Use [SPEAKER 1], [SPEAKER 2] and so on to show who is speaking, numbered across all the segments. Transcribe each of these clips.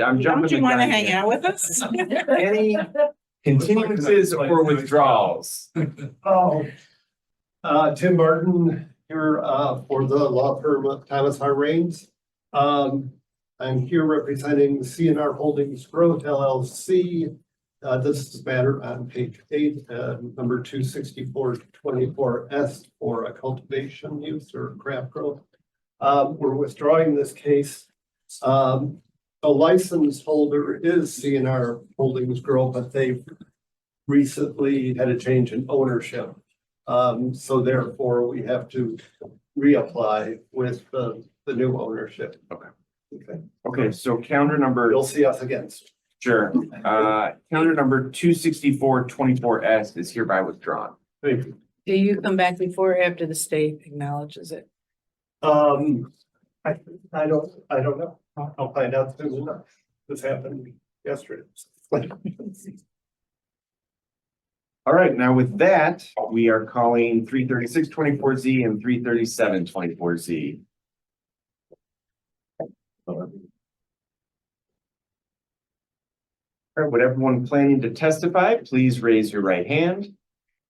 [SPEAKER 1] I'm
[SPEAKER 2] Don't
[SPEAKER 1] jumping
[SPEAKER 2] you
[SPEAKER 1] the
[SPEAKER 2] want to
[SPEAKER 1] gun
[SPEAKER 2] hang
[SPEAKER 1] here.
[SPEAKER 2] out with us?
[SPEAKER 1] Any continuances or withdrawals?
[SPEAKER 3] Oh. Uh, Tim Martin here, uh, for the law firm of Thomas R. Raines. Um, I'm here representing CNR Holdings Growth LLC. Uh, this is matter on page eight, uh, number two sixty-four twenty-four S for a cultivation use or craft growth. Um, we're withdrawing this case. Um, the license holder is CNR Holdings Grow, but they've recently had a change in ownership. Um, so therefore we have to reapply with the, the new ownership.
[SPEAKER 1] Okay.
[SPEAKER 3] Okay,
[SPEAKER 1] Okay, so counter number,
[SPEAKER 3] you'll see us again.
[SPEAKER 1] sure, uh, counter number two sixty-four twenty-four S is hereby withdrawn.
[SPEAKER 3] Thank you.
[SPEAKER 2] Do you come back before or after the state acknowledges it?
[SPEAKER 3] Um, I, I don't, I don't know. I'll find out soon enough. This happened yesterday.
[SPEAKER 1] All right, now with that, we are calling three thirty-six twenty-four Z and three thirty-seven twenty-four Z. All right, would everyone planning to testify, please raise your right hand?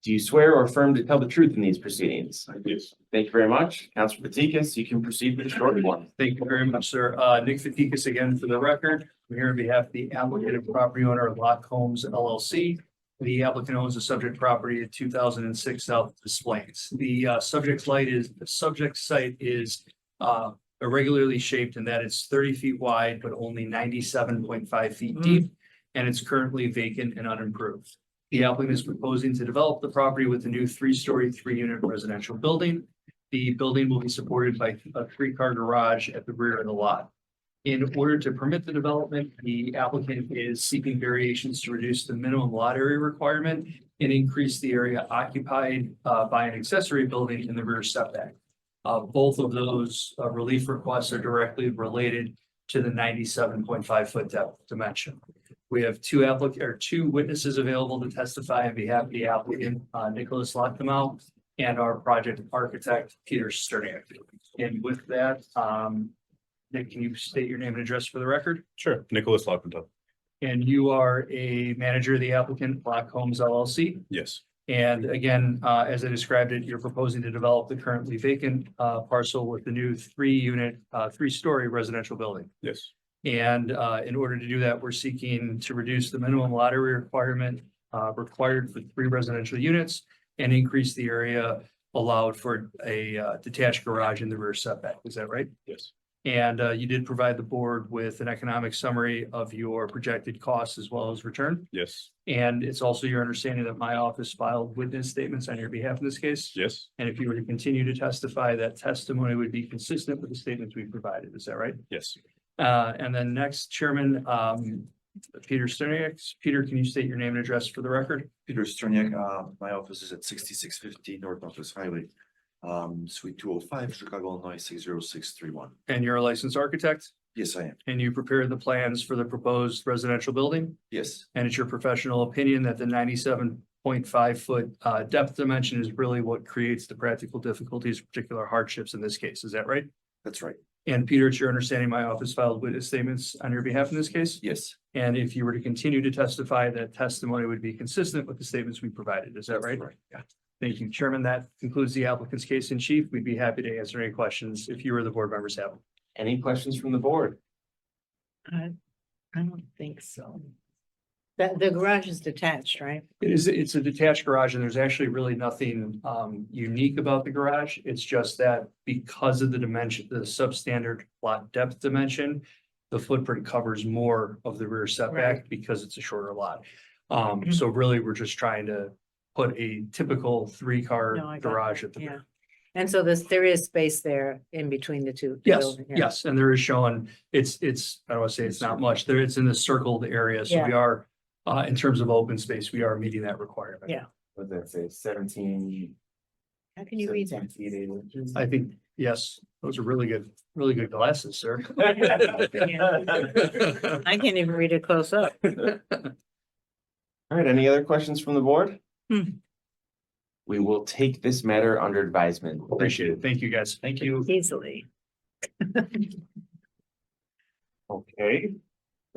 [SPEAKER 1] Do you swear or affirm to tell the truth in these proceedings?
[SPEAKER 4] Yes.
[SPEAKER 1] Thank you very much. Counselor Fatikas, you can proceed with the short one.
[SPEAKER 4] Thank you very much, sir. Uh, Nick Fatikas again for the record. We're here on behalf of the applicant and property owner of Lock Homes LLC. The applicant owns the subject property at two thousand and six South Displays. The uh, subject light is, the subject site is uh, irregularly shaped in that it's thirty feet wide, but only ninety-seven point five feet deep. And it's currently vacant and unimproved. The applicant is proposing to develop the property with a new three-story, three-unit residential building. The building will be supported by a three-car garage at the rear of the lot. In order to permit the development, the applicant is seeking variations to reduce the minimum lot area requirement and increase the area occupied uh, by an accessory building in the rear setback. Uh, Both of those uh, relief requests are directly related to the ninety-seven point five foot depth dimension. We have two applicant, or two witnesses available to testify on behalf of the applicant, uh, Nicholas Lockmouth and our project architect, Peter Sterniak. And with that, um, Nick, can you state your name and address for the record?
[SPEAKER 5] Sure, Nicholas Lockton.
[SPEAKER 4] And you are a manager of the applicant, Black Homes LLC.
[SPEAKER 5] Yes,
[SPEAKER 4] And again, uh, as I described it, you're proposing to develop the currently vacant, uh, parcel with the new three-unit, uh, three-story residential building.
[SPEAKER 5] yes,
[SPEAKER 4] And uh, in order to do that, we're seeking to reduce the minimum lottery requirement uh, required for three residential units and increase the area allowed for a uh, detached garage in the rear setback. Is that right?
[SPEAKER 5] yes,
[SPEAKER 4] And uh, you did provide the board with an economic summary of your projected costs as well as return.
[SPEAKER 5] yes,
[SPEAKER 4] And it's also your understanding that my office filed witness statements on your behalf in this case.
[SPEAKER 5] yes,
[SPEAKER 4] And if you were to continue to testify, that testimony would be consistent with the statements we provided. Is that right?
[SPEAKER 5] yes.
[SPEAKER 4] Uh, and then next chairman, um, Peter Sterniak. Peter, can you state your name and address for the record?
[SPEAKER 6] Peter Sterniak, uh, my office is at sixty-six fifty North Northwest Highway, um, suite two oh five, Chicago, Illinois, six zero six three one.
[SPEAKER 4] And you're a licensed architect
[SPEAKER 6] Yes, I am.
[SPEAKER 4] and you prepared the plans for the proposed residential building?
[SPEAKER 6] Yes,
[SPEAKER 4] And it's your professional opinion that the ninety-seven point five foot, uh, depth dimension is really what creates the practical difficulties, particular hardships in this case. Is that right?
[SPEAKER 6] that's right.
[SPEAKER 4] And Peter, it's your understanding my office filed witness statements on your behalf in this case?
[SPEAKER 6] Yes.
[SPEAKER 4] And if you were to continue to testify, that testimony would be consistent with the statements we provided. Is that
[SPEAKER 6] that's
[SPEAKER 4] right?
[SPEAKER 6] Yeah.
[SPEAKER 4] Thank you, Chairman. That concludes the applicant's case in chief. We'd be happy to answer any questions if you or the board members have. them.
[SPEAKER 1] Any questions from the board?
[SPEAKER 2] I don't think so. That, the garage is detached, right?
[SPEAKER 4] It is, it's a detached garage and there's actually really nothing um unique about the garage. It's just that because of the dimension, the substandard lot depth dimension, the footprint covers more of the rear setback because it's a shorter lot. Um,
[SPEAKER 2] Mm-hmm.
[SPEAKER 4] so really, we're just trying to put a typical
[SPEAKER 2] No, I
[SPEAKER 4] three-car
[SPEAKER 2] got
[SPEAKER 4] garage at the
[SPEAKER 2] Yeah.
[SPEAKER 4] rear.
[SPEAKER 2] And so this, there is space there in between the two. the
[SPEAKER 4] Yes,
[SPEAKER 2] building, yeah.
[SPEAKER 4] yes, and there is showing, it's, it's, I don't want to say it's not much, there, it's in the circled area, so we are, uh, in terms of open space, we are meeting that requirement.
[SPEAKER 2] Yeah.
[SPEAKER 1] What does that say? Seventeen.
[SPEAKER 2] How can you read
[SPEAKER 1] 17
[SPEAKER 2] that?
[SPEAKER 1] feet, eight inches?
[SPEAKER 4] I think, yes, those are really good, really good glasses, sir.
[SPEAKER 2] I can't even read it close up.
[SPEAKER 1] All right, any other questions from the board?
[SPEAKER 2] Hmm.
[SPEAKER 1] We will take this matter under advisement. Thank
[SPEAKER 4] Appreciate
[SPEAKER 1] you.
[SPEAKER 4] it. Thank you, guys. Thank you.
[SPEAKER 2] Easily.
[SPEAKER 1] Okay,